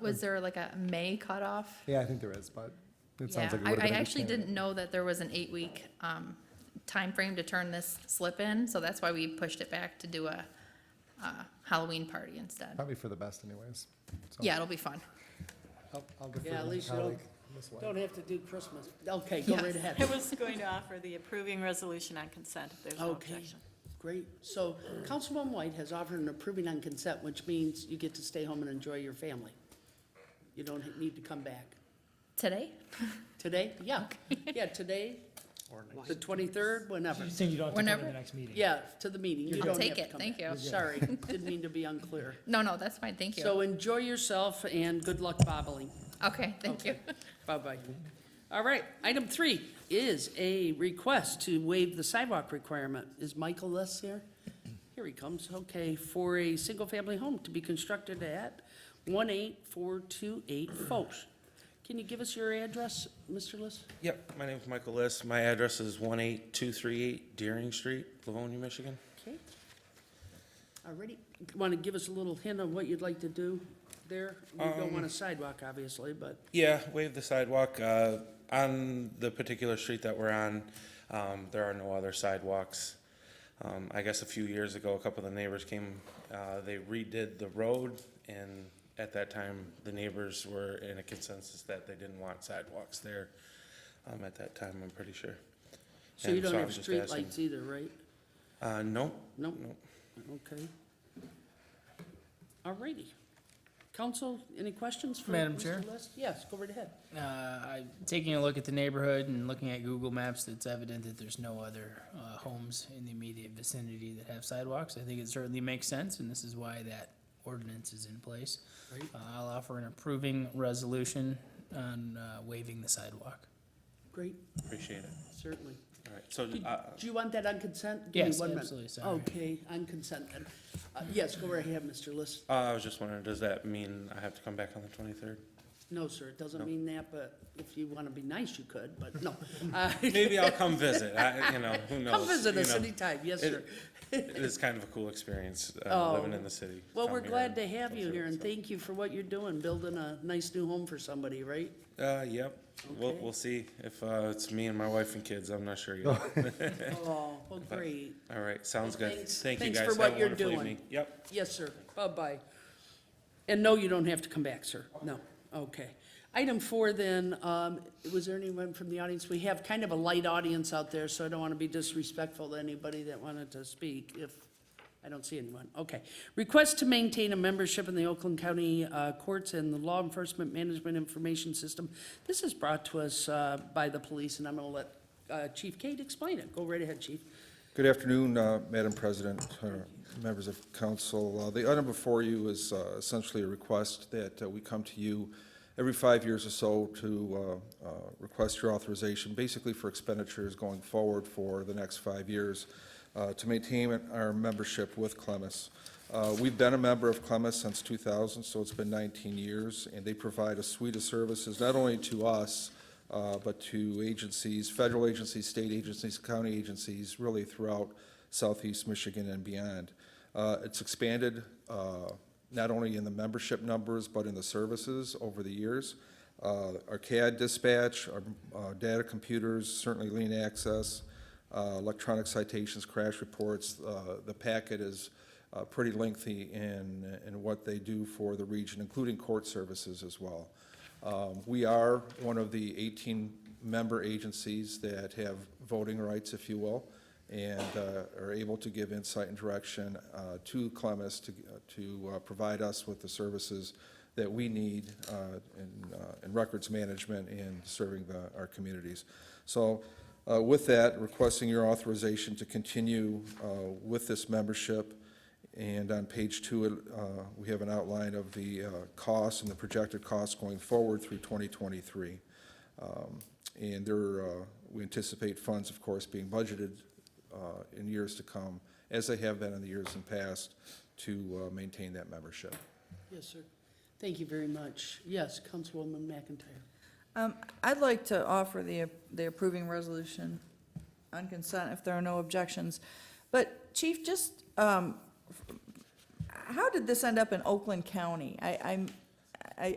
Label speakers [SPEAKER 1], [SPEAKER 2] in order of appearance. [SPEAKER 1] Was there like a May cutoff?
[SPEAKER 2] Yeah, I think there is, but
[SPEAKER 1] Yeah,
[SPEAKER 2] it sounds like it
[SPEAKER 1] I,
[SPEAKER 2] would have
[SPEAKER 1] I
[SPEAKER 2] been. a good
[SPEAKER 1] actually
[SPEAKER 2] candidate.
[SPEAKER 1] didn't know that there was an eight-week, um, timeframe to turn this slip in, so that's why we pushed it back to do a, uh, Halloween party instead.
[SPEAKER 2] Probably for the best anyways. So
[SPEAKER 1] Yeah, it'll be fun.
[SPEAKER 2] I'll- I'll defer
[SPEAKER 3] Yeah,
[SPEAKER 2] to
[SPEAKER 3] at
[SPEAKER 2] my
[SPEAKER 3] least you don't,
[SPEAKER 2] colleague, Ms. White.
[SPEAKER 3] don't have to do Christmas. Okay, go
[SPEAKER 1] Yes.
[SPEAKER 3] right ahead.
[SPEAKER 4] I was going to offer the approving resolution on consent, if there's no
[SPEAKER 3] Okay,
[SPEAKER 4] objection.
[SPEAKER 3] great. So Councilwoman White has offered an approving on consent, which means you get to stay home and enjoy your family. You don't need to come back.
[SPEAKER 1] Today?
[SPEAKER 3] Today? Yeah, yeah, today, the twenty-third, whenever.
[SPEAKER 5] You're saying you don't have to come to
[SPEAKER 1] Whenever-
[SPEAKER 5] the next meeting?
[SPEAKER 3] Yeah, to the meeting. You
[SPEAKER 1] I'll
[SPEAKER 3] don't
[SPEAKER 1] take
[SPEAKER 3] have to
[SPEAKER 1] it.
[SPEAKER 3] come
[SPEAKER 1] Thank
[SPEAKER 3] back.
[SPEAKER 1] you. You're good.
[SPEAKER 3] Sorry, didn't mean to be unclear.
[SPEAKER 1] No, no, that's fine, thank
[SPEAKER 3] So
[SPEAKER 1] you.
[SPEAKER 3] enjoy yourself and good luck bobbling.
[SPEAKER 1] Okay, thank you.
[SPEAKER 3] Bye-bye. All right, item three is a request to waive the sidewalk requirement. Is Michael Les here? Here he comes, okay, for a single-family home to be constructed at one eight four two eight Foch. Can you give us your address, Mr. Les?
[SPEAKER 6] Yep, my name's Michael Liss. My address is 18238 Deering Street, Livonia, Michigan.
[SPEAKER 3] Okay. Already, want to give us a little hint on what you'd like to do there? We don't
[SPEAKER 6] Um,
[SPEAKER 3] want a sidewalk, obviously, but,
[SPEAKER 6] Yeah, waive the sidewalk. Uh, On the particular street that we're on, um, there are no other sidewalks. Um, I guess a few years ago, a couple of the neighbors came, uh, they redid the road, and at that time, the neighbors were in a consensus that they didn't want sidewalks there um, at that time, I'm pretty sure.
[SPEAKER 3] so you
[SPEAKER 6] And
[SPEAKER 3] don't
[SPEAKER 6] I
[SPEAKER 3] have
[SPEAKER 6] was just asking-
[SPEAKER 3] streetlights either, right?
[SPEAKER 6] Uh, no,
[SPEAKER 3] Nope.
[SPEAKER 6] no.
[SPEAKER 3] Okay. All righty. Council, any questions for
[SPEAKER 5] Madam
[SPEAKER 3] Mr.
[SPEAKER 5] Chair?
[SPEAKER 3] List? Yes, go right ahead.
[SPEAKER 5] Uh, I, taking a look at the neighborhood and looking at Google Maps, it's evident that there's no other, uh, homes in the immediate vicinity that have sidewalks. I think it certainly makes sense, and this is why that ordinance is in place.
[SPEAKER 3] Right.
[SPEAKER 5] Uh, I'll offer an approving resolution on, uh, waiving the sidewalk.
[SPEAKER 3] Great,
[SPEAKER 6] Appreciate it.
[SPEAKER 3] certainly.
[SPEAKER 6] All right, so
[SPEAKER 3] Did-
[SPEAKER 6] uh,
[SPEAKER 3] Do you want that on consent? Give me
[SPEAKER 5] Yes,
[SPEAKER 3] one minute. Oh,
[SPEAKER 5] absolutely, sorry.
[SPEAKER 3] Okay, on consent then. Uh, Yes, go right ahead, Mr. List.
[SPEAKER 6] Uh, I was just wondering, does that mean I have to come back on the twenty-third?
[SPEAKER 3] No, sir, it doesn't mean that, but if you want to be nice, you could, but no. Uh,
[SPEAKER 6] Maybe I'll come visit, I, you know, who knows?
[SPEAKER 3] Come visit
[SPEAKER 6] you
[SPEAKER 3] us
[SPEAKER 6] know.
[SPEAKER 3] anytime, yes,
[SPEAKER 6] It-
[SPEAKER 3] sir.
[SPEAKER 6] It is kind of a cool experience, uh,
[SPEAKER 3] Oh.
[SPEAKER 6] living in the city.
[SPEAKER 3] Well,
[SPEAKER 6] Come
[SPEAKER 3] we're
[SPEAKER 6] here
[SPEAKER 3] glad
[SPEAKER 6] and
[SPEAKER 3] to have
[SPEAKER 6] go
[SPEAKER 3] you
[SPEAKER 6] through
[SPEAKER 3] here
[SPEAKER 6] it,
[SPEAKER 3] and thank you for what you're doing, building a nice new home for somebody, right?
[SPEAKER 6] so. Uh, yep, we'll,
[SPEAKER 3] Okay.
[SPEAKER 6] we'll see if, uh, it's me and my wife and kids, I'm not sure yet.
[SPEAKER 3] Oh, well, great.
[SPEAKER 6] All right, sounds
[SPEAKER 3] Well,
[SPEAKER 6] good,
[SPEAKER 3] thanks-
[SPEAKER 6] thank you
[SPEAKER 3] thanks
[SPEAKER 6] guys,
[SPEAKER 3] for
[SPEAKER 6] have
[SPEAKER 3] what
[SPEAKER 6] a
[SPEAKER 3] you're
[SPEAKER 6] wonderful
[SPEAKER 3] doing.
[SPEAKER 6] evening. Yep.
[SPEAKER 3] Yes, sir. Bye-bye. And no, you don't have to come back, sir. No. Okay. Item four, then, um, was there anyone from the audience? We have kind of a light audience out there, so I don't want to be disrespectful to anybody that wanted to speak if I don't see anyone. Okay. Request to maintain a membership in the Oakland County uh, Courts and the Law Enforcement Management Information System. This is brought to us uh, by the police, and I'm going to let uh, Chief Kate explain it. Go right ahead, Chief.
[SPEAKER 7] Good afternoon, uh, Madam President, uh, members of council. Uh, The item before you is uh, essentially a request that uh, we come to you every five years or so to uh, uh, request your authorization, basically for expenditures going forward for the next five years, uh, to maintain our membership with Clemis. Uh, We've been a member of Clemis since 2000, so it's been 19 years, and they provide a suite of services, not only to us, uh, but to agencies, federal agencies, state agencies, county agencies, really throughout southeast Michigan and beyond. Uh, It's expanded uh, not only in the membership numbers, but in the services over the years. Uh, Our CAD dispatch, our uh, data computers, certainly lean access, uh, electronic citations, crash reports. uh, The packet is uh, pretty lengthy in, in what they do for the region, including court services as well. Um, We are one of the 18 member agencies that have voting rights, if you will, and uh, are able to give insight and direction uh, to Clemis to, to uh, provide us with the services that we need uh, in, uh, in records management and serving the, our communities. So uh, with that, requesting your authorization to continue uh, with this membership. And on page two, it, uh, we have an outline of the uh, costs and the projected costs going forward through 2023. Um, And there, uh, we anticipate funds, of course, being budgeted uh, in years to come, as they have been in the years in past, to uh, maintain that membership.
[SPEAKER 3] Yes, sir. Thank you very much. Yes, Councilwoman McIntyre.
[SPEAKER 8] Um, I'd like to offer the, the approving resolution on consent if there are no objections. But Chief, just, um, how did this end up in Oakland County? I, I'm,